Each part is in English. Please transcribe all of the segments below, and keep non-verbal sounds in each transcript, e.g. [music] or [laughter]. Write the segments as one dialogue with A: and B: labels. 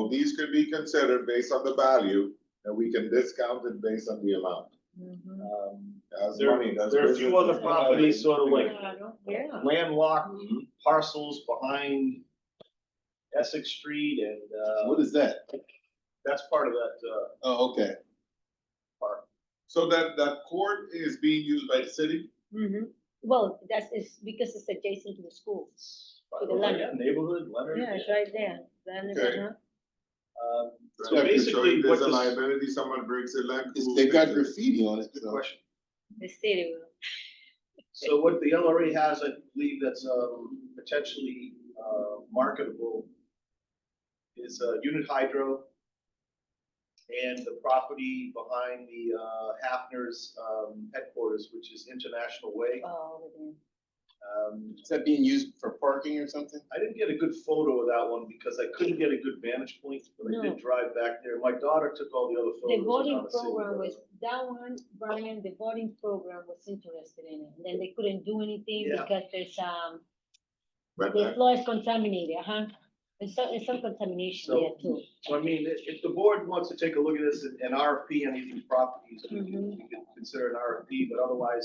A: Well, These could be considered based on the value, and we can discount it based on the amount. Um, As
B: There-
A: money does.
B: there are a few
A: business.
B: other properties sort of like-
C: Yeah. Mm-hmm.
B: landlocked
A: Mhm.
B: parcels behind Essex Street and, uh,
D: What is that?
B: that's part of that, uh,
D: Oh, okay.
A: So that, that court is being used by the city?
C: Mhm. Well, that's, it's because it's adjacent to the school.
B: by
C: To
B: the
C: the
B: way,
C: Leonard.
B: yeah, neighborhood, Leonard.
C: Yeah, it's right there. Then it's,
A: Okay.
C: uh-huh.
B: Um,
A: So
B: So
A: if you show
B: basically,
A: if
B: what
A: There's a
B: this,
A: liability, someone breaks a leg.
D: It's,
A: who
D: they've got
A: fixes it?
D: graffiti on it, so.
B: question.
C: the city will.
B: So what the LRA has, I believe that's, um, potentially, uh, marketable is, uh, unit hydro and the property behind the, uh, Hafner's, um, headquarters, which is International Way.
C: Oh, over
B: Um,
D: Is that being used for parking or something?
B: I didn't get a good photo of that one because I couldn't get a good vantage point, but I
C: No.
B: did drive back there. My daughter took all the other
C: there. The
B: photos. of
C: voting
B: how the city
C: program
B: was.
C: was, that one, Brian, the voting program was interested in it. And then they couldn't do anything
B: Yeah.
C: because there's, um,
A: But uh,
C: the
A: that-
C: floor is contaminated, uh-huh. huh? There's some, there's some contamination
B: So-
C: there too.
B: So I mean, if, if the board wants to take a look at this and and RFP any of these properties, we can,
C: Mhm.
B: we can consider an RFP, but otherwise,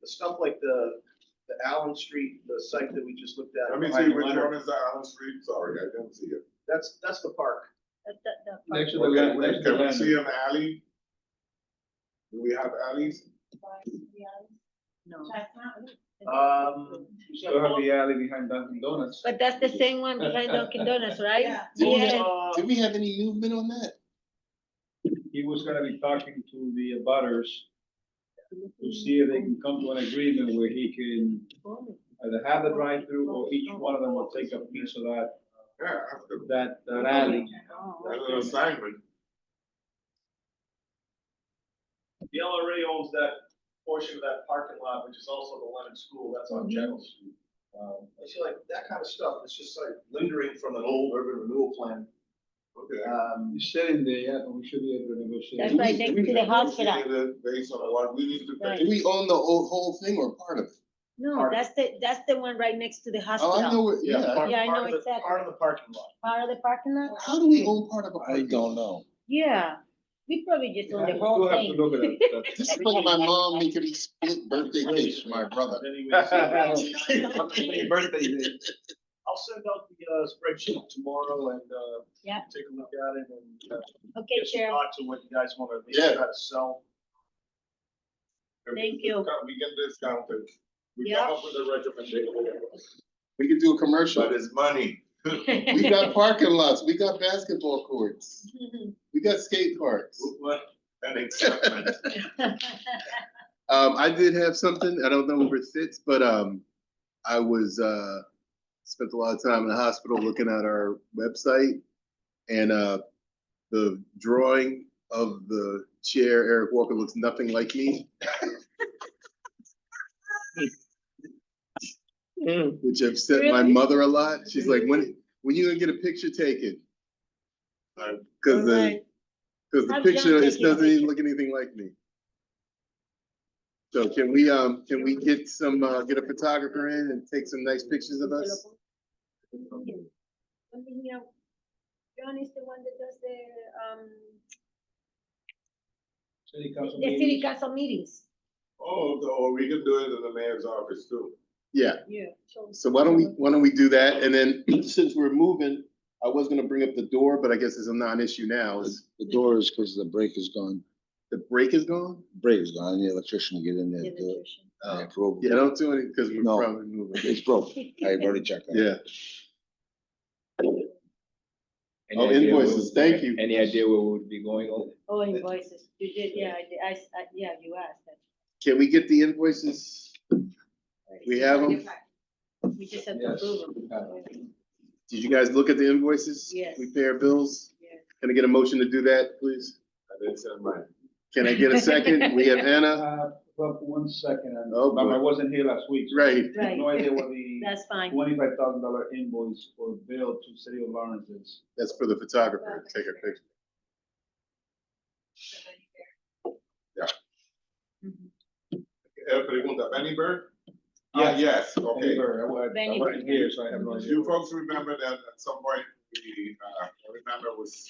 B: the stuff like the, the Allen Street, the site that we just looked at.
A: Let me
B: behind
A: see, which
B: Leonard,
A: one is uh, the Allen Street? Sorry, I didn't see it.
B: That's, that's the park.
C: That- that- that part.
E: Next to the,
A: Okay,
E: land-
A: we-
E: next to
A: Can
E: the
A: we see
E: land.
A: an alley? Do we have alleys?
C: No.
B: Um,
E: You have the alley behind Dunkin' Donuts.
C: But that's the same one behind Dunkin' Donuts, right?
F: Yeah.
D: Well,
C: Yeah.
B: uh,
D: Did we have any movement on that?
E: He was gonna be talking to the butters to see if they can come to an agreement where he can either have the drive-through or each one of them will take a piece of that,
A: Yeah, that's the-
E: that, that alley.
D: Oh.
A: that's an assignment.
B: the LRA owns that portion of that parking lot, which is also the Leonard School, that's
D: Mhm.
B: on General Street. Um, I feel like that kind of stuff, it's just like lingering from an old urban renewal plan.
A: Okay.
B: Um,
E: He's sitting there, yeah, but we should be able to negotiate.
C: That's right next to the hospital.
A: Negotiate it Based on what we need to
C: Right.
A: pay.
D: Do we own the whole, whole thing or part of it?
C: No,
B: Part-
C: that's the, that's the one right next to the
D: Oh, I know
C: hospital,
D: where, yeah.
B: part-
C: Yeah, I
B: part
C: know
B: of the-
C: exactly.
B: Part of the parking lot.
C: part of the parking lot.
D: How do we own part of it? I don't know.
C: Yeah, we probably just own the
E: We'll
C: whole
E: have to
C: thing.
E: look at it, but-
D: [laughs] This is like my mom making me split birthday cakes for my
A: [laughs]
D: brother. [laughs]
B: Anyways, [laughs] I'll send out the uh, spreadsheet tomorrow and uh,
C: Yeah.
B: take a look at it and uh,
C: [laughs] Okay,
B: get some
C: Chair,
B: thoughts on what you guys want to at least
D: Yeah.
B: try to sell.
A: If we
C: Thank you.
A: discount- We can discount it. We
C: Yeah.
A: come up with a recommendation,
D: We could do a commercial.
A: but it's money.
C: [laughs]
D: We got parking lots, we got basketball courts, we got skate parks.
A: And excitement.
D: Um, I did have something, I don't know where it sits, but, um, I was, uh, spent a lot of time in the hospital looking at our website. And, uh, the drawing of the chair, Eric Walker looks nothing like me. Which upset my
C: Really?
D: mother a lot, she's like, when, when you gonna get a picture taken? Like, Cause the,
C: Alright.
D: cause the
C: Have John
D: picture, it
C: take your
D: doesn't even
C: picture.
D: look anything like me. So can we, um, can we get some, uh, get a photographer in and take some nice pictures of us?
C: I mean, you know, John is the one that does the, um,
E: City council
C: the
E: meeting.
C: city council meetings.
A: Oh, or we can do it in the mayor's office too.
D: Yeah,
C: Yeah.
D: so why don't we, why don't we do that? And then [clears throat] since we're moving, I was gonna bring up the door, but I guess it's a non-issue now. Is
G: The door is because the brake is gone,
D: the break is gone?
G: brake is gone, I need an electrician to get in there. and do it.
H: Uh,
D: Oh.
G: Yeah, probe.
D: Yeah, don't do it because we're
G: No. [laughs]
D: probably moving.
G: It's
C: [laughs]
G: broke, I've already checked. on it.
D: Yeah.
H: Any
D: Oh,
H: idea where-
D: invoices, thank you.
H: Any idea where we would be going on?
C: Oh, invoices, you did, yeah, I did, I, s- I- yeah, you asked that.
D: Can we get the invoices? We have them?
C: We just have to
E: Yes.
C: approve
E: Yeah.
C: them.
D: Did you guys look at the invoices?
C: Yes.
D: We pay our bills?
C: Yes.
D: Can I get a motion to do that, please?
A: I didn't send mine.
D: Can I get a second? We
C: [laughs]
D: have Anna,
E: Uh, well, one second, and-
D: Oh,
E: um, I
D: boy.
E: wasn't here last week. so
D: right,
E: I have No
C: Right,
E: idea what
C: [laughs]
E: the
C: that's fine.
E: twenty-five thousand dollar invoice or bill to City of Lawrence is.
D: that's for the photographer, to take a picture.
C: Mhm.
A: Eh, Pregunta, Benny Burke? Ah, yes, okay.
E: Anywhere, I wa- I
C: Benny
E: wasn't here, so I have no idea.
A: You folks remember that at some point,
D: we, uh, I remember was